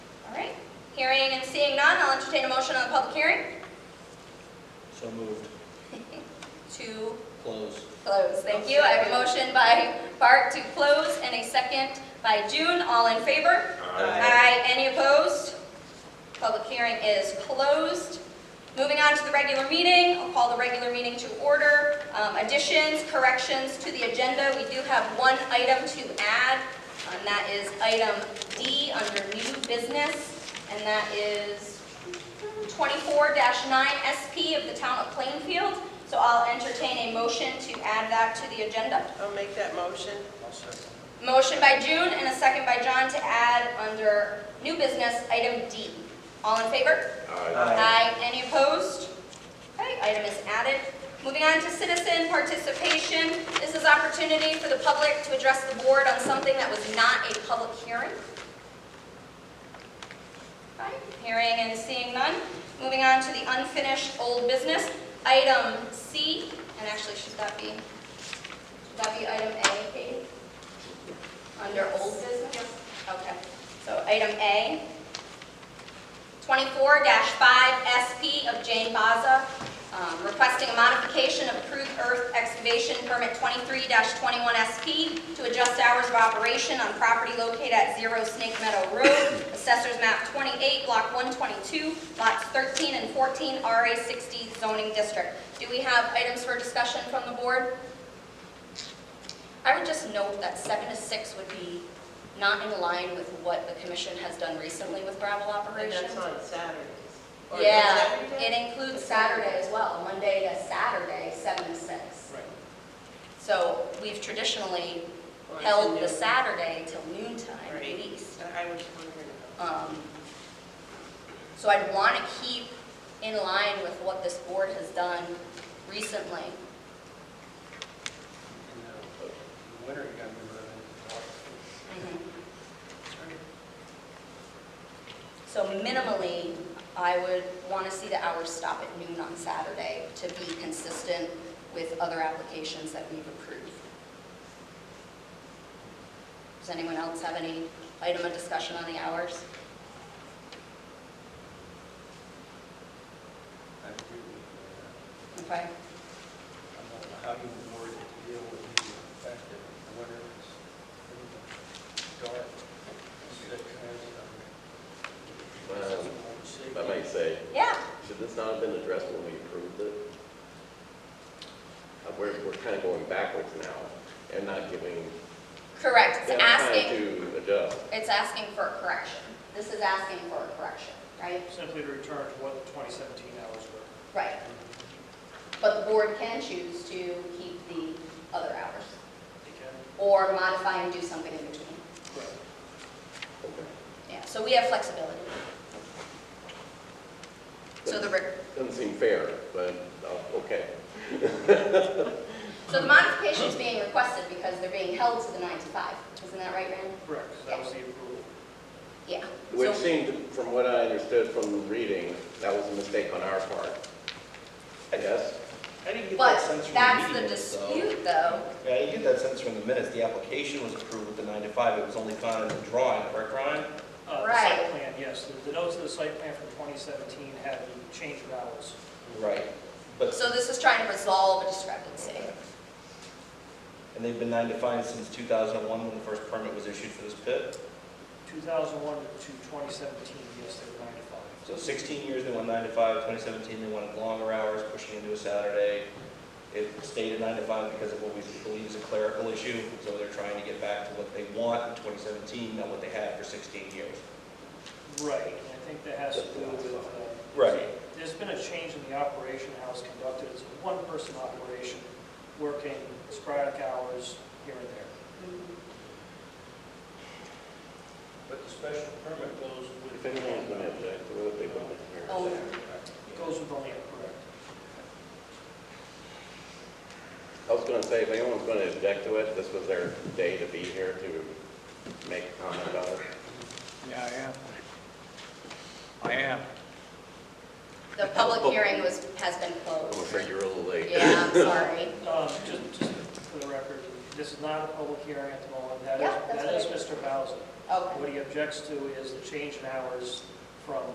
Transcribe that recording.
Hearing and seeing none, I'll entertain a motion on the public hearing So moved. to Close. close. Thank you. I have a motion by Bart to close and a second by June. All in favor? Aye. Any opposed? Public hearing is closed. Moving on to the regular meeting, I'll call the regular meeting to order. Um, Additions, corrections to the agenda, we do have one item to add, and that is item D under new business, and that is 24-9 SP of the town of Plainfield. So I'll entertain a motion to add that to the agenda. I'll make that motion. Motion by June and a second by John to add under new business, item D. All in favor? Aye. Any opposed? Okay, item is added. Moving on to citizen participation. This is opportunity for the public to address the board on something that was not a public hearing. Okay, Hearing and seeing none. Moving on to the unfinished old business. Item C, and actually, should that be, should that be item A, Katie? Under old business? Okay, so item A. 24-5SP of Jane Baza, um, requesting a modification of approved earth excavation permit 23-21SP to adjust hours of operation on property located at 0 Snake Meadow Road, Assessors Map 28, Block 122, Lots 13 and 14, RA 60 zoning district. Do we have items for discussion from the board? I would just note that seven to six would be not in line with what the commission has done recently with gravel And operations. that's on Saturdays. Or is Yeah, that every day? it includes Saturday as well, Monday to Saturday, seven to six. Right. So we've traditionally Or is it held noon? the Saturday till noontime at Right. least. I was wondering about. Um, So I'd want to keep in line with what this board has done recently. In the winter, you gotta be running. Mm-hmm. So minimally, I would want to see the hours stop at noon on Saturday to be consistent with other applications that we've approved. Does anyone else have any item of discussion on the hours? I agree with Okay, you. I don't know how you would work to deal with the fact that in the winter it's pretty dark. See that kind of stuff. Well, Safety. If I might say, yeah, should this not have been addressed when we approved it? Uh, We're, we're kind of going backwards now and not giving correct, them it's time asking, to adjust. it's asking for a correction. This is asking for a correction, right? simply to return to what the 2017 hours were. Right. But the board can choose to keep the other hours, They can- or modify and do something in between. Okay. Yeah, so we have flexibility. So the, re- Doesn't seem fair, but, uh, okay. so the modification's being requested because they're being held to the nine to five, isn't that right, Rand? Correct, that was the approval. Yeah. Which So- seemed, from what I understood from reading, that was a mistake on our part. I guess. I didn't get that But sense from that's the the minutes, though. dispute, though. Yeah, I didn't get that sense from the minutes. The application was approved with the nine to five. It was only found in the drawing, correct, Ryan? Uh, the Right. site plan, yes, the- the notes of the site plan from 2017 had the change of hours. Right. But, So this is trying to resolve a discrepancy. and they've been nine to five since two thousand and one, when the first permit was issued for this pit. 2001 to 2017, yes, they were 9 to 5. So sixteen years, they went nine to five. Twenty seventeen, they wanted longer hours, pushing into a Saturday. It stayed at nine to five because of what we believe is a clerical issue, so they're trying to get back to what they want in twenty seventeen, not what they had for sixteen years. Right, and I think that has to do with... uh, Right. There's been a change in the operation, how it's conducted. It's a one-person operation, working sporadic hours here and there. But the special permit goes If with. anyone's going to object, what if they want to hear? Oh. It goes with only, correct. I was going to say, if anyone's going to object to it, this was their day to be here to make a comment about it. Yeah, I am. I am. The public hearing was, has been I'm closed. afraid you're a little late. Yeah, I'm sorry. Um, Just just for the record, this is not a public hearing at the moment. That Yeah, is, that's that is what I- Mr. Bowser. Okay. What he objects to is the change in hours from